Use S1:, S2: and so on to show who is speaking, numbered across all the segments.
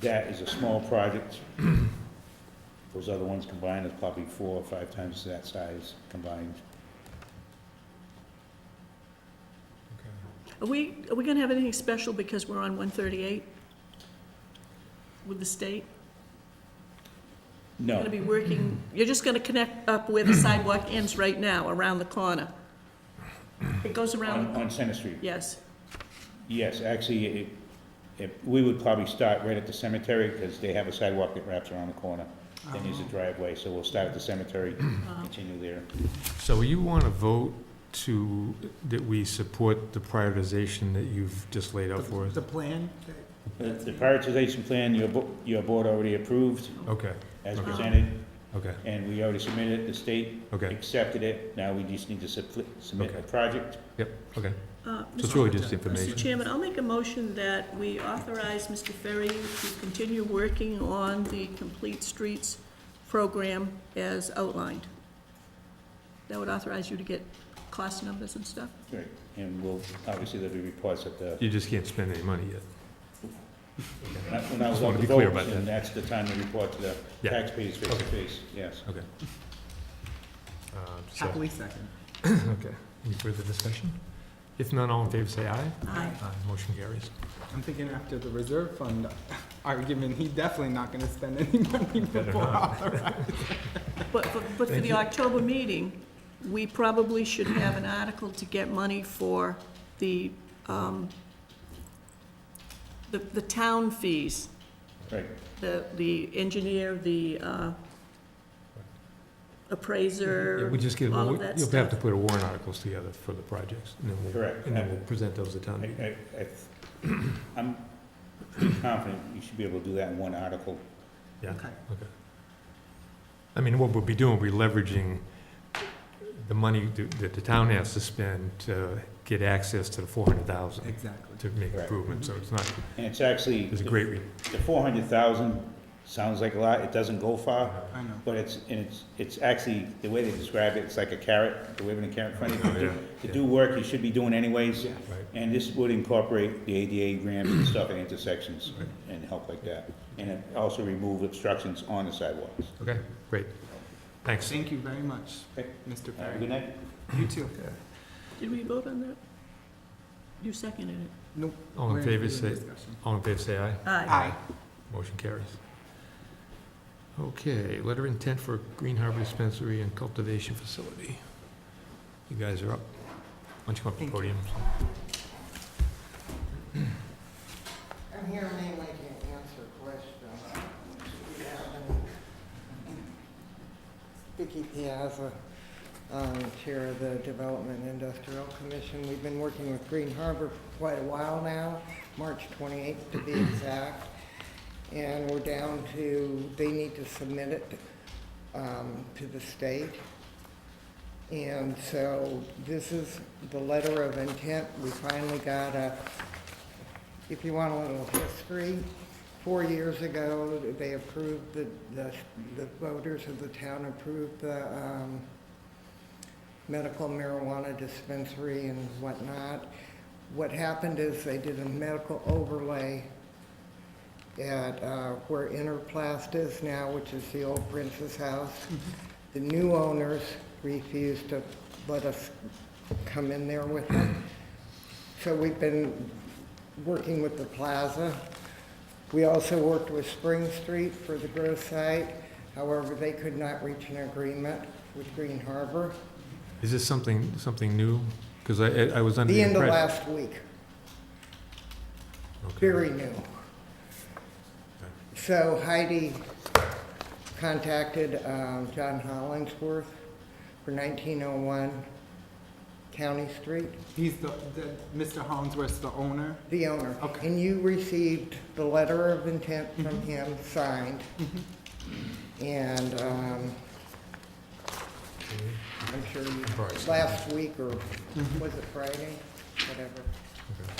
S1: that is a small project. Those other ones combined is probably four or five times that size combined.
S2: Are we, are we gonna have anything special because we're on one thirty-eight with the state?
S1: No,
S2: Gonna be working, you're just gonna connect up where the sidewalk ends right now, around the corner. It goes
S1: on,
S2: around,
S1: on Center Street.
S2: yes,
S1: Yes, actually, it, it, we would probably start right at the cemetery, because they have a sidewalk that wraps around the corner. Then there's
S2: Oh.
S1: a driveway, so we'll start at the cemetery,
S2: Uh-huh.
S1: continue there.
S3: So you want to vote to, that we support the prioritization that you've just laid out for us?
S4: The plan?
S1: The the prioritization plan, your, bo- your board already approved
S3: Okay,
S1: as
S2: Okay.
S1: presented,
S3: okay,
S1: and we already submitted it, the state
S3: okay,
S1: accepted it, now we just need to subli- submit the
S3: Okay.
S1: project.
S3: yep, okay.
S2: uh,
S3: So it's
S2: Mr.
S3: really just
S2: Mr.
S3: information.
S2: Chairman, I'll make a motion that we authorize Mr. Ferry to continue working on the Complete Streets program as outlined. That would authorize you to get cost numbers and stuff?
S1: Right. And we'll, obviously, there'll be reports at the,
S3: You just can't spend any money yet.
S1: when I- when I was
S3: Just wanna
S1: on the
S3: be clear
S1: vote,
S3: about
S1: and that's the time to report to the
S3: Yeah.
S1: taxpayers face to
S3: Okay.
S1: face, yes.
S3: Okay. Uh, so-
S4: Happily second.
S3: Okay, any further discussion? If none, all in favor, say aye.
S2: Aye.
S3: Aye, Motion carries.
S4: I'm thinking after the reserve fund argument, he's definitely not gonna spend any money
S3: Better
S4: before
S3: not.
S4: authorized.
S2: But, but- but for
S3: Thank
S2: the
S3: you.
S2: October meeting, we probably should have an article to get money for the, um, the, the town fees,
S1: Right,
S2: the, the engineer, the, uh,
S3: Yeah,
S2: appraiser,
S3: We just get,
S2: all
S3: you'll
S2: of
S3: have
S2: that
S3: to
S2: stuff.
S3: put a warrant articles together for the projects. and then we'll-
S1: Correct.
S3: And then we'll present those at town
S1: I,
S3: meeting.
S1: I, I- I'm pretty confident you should be able to do that in one article.
S3: Yeah.
S4: Okay.
S3: Okay. I mean, what we'll be doing, we'll be leveraging the money th- that the town has to spend to get access to the four hundred thousand
S4: Exactly.
S3: to make
S1: Right. Mm-hmm.
S3: improvements, so it's not,
S1: And it's actually,
S3: it's a great, re-
S1: the four hundred thousand sounds like a lot, it doesn't go far,
S4: I know.
S1: but it's, and it's, it's actually, the way they describe it, it's like a carrot, the waving a carrot in front of you.
S3: Yeah,
S1: To
S3: yeah.
S1: do work you should be doing anyways,
S4: Yes.
S3: right,
S1: and this would incorporate the ADA ramps and stuff at intersections and help like that. And it also remove obstructions on the sidewalks.
S3: okay, great, thanks.
S4: Thank you very much,
S1: Okay.
S4: Mr.
S1: Have a
S4: Perry.
S1: good night.
S4: You too.
S2: Did we vote on that? You seconded it.
S4: Nope.
S3: All
S4: we're
S3: in favor,
S4: further
S3: say,
S4: discussion.
S3: all in favor, say aye,
S2: Aye.
S4: Aye.
S3: motion carries. Okay, letter of intent for Green Harbor Dispensary and Cultivation Facility. You guys are up, why don't you come up to the
S4: Thank
S3: podium?
S5: I'm here mainly to answer questions. Vicky Piazza, um, Chair of the Development Industrial Commission. We've been working with Green Harbor for quite a while now, March 28th to be exact. And we're down to, they need to submit it um, to the state. And so this is the letter of intent. We finally got a, if you want a little history, four years ago, they approved, the, the the voters of the town approved the um, medical marijuana dispensary and whatnot. What happened is they did a medical overlay at uh, where Interplast is now, which is the old Prince's House. The new owners refused to let us come in there with them. So we've been working with the plaza. We also worked with Spring Street for the growth site. However, they could not reach an agreement with Green Harbor.
S3: Is this something, something new? Because I, I- I was under
S5: The
S3: the
S5: end
S3: impression.
S5: of last week,
S3: Okay.
S5: very new. So Heidi contacted um, John Hollingsworth for 1901 County Street,
S4: He's the, the- Mr. Hollingsworth's the owner.
S5: the owner.
S4: Okay.
S5: And you received the letter of intent from him, signed. And um, I'm sure you,
S3: Price.
S5: last week or was it Friday, whatever.
S3: Okay.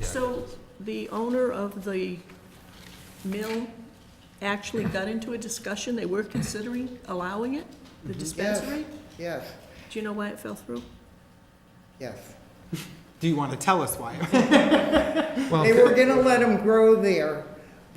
S3: Yeah.
S2: So the owner of the mill actually got into a discussion, they were considering allowing it, the dispensary?
S5: Yes,
S2: Do you know why it fell through?
S5: yes.
S4: Do you want to tell us why?
S3: Well, Oh,
S5: They were gonna let him grow there,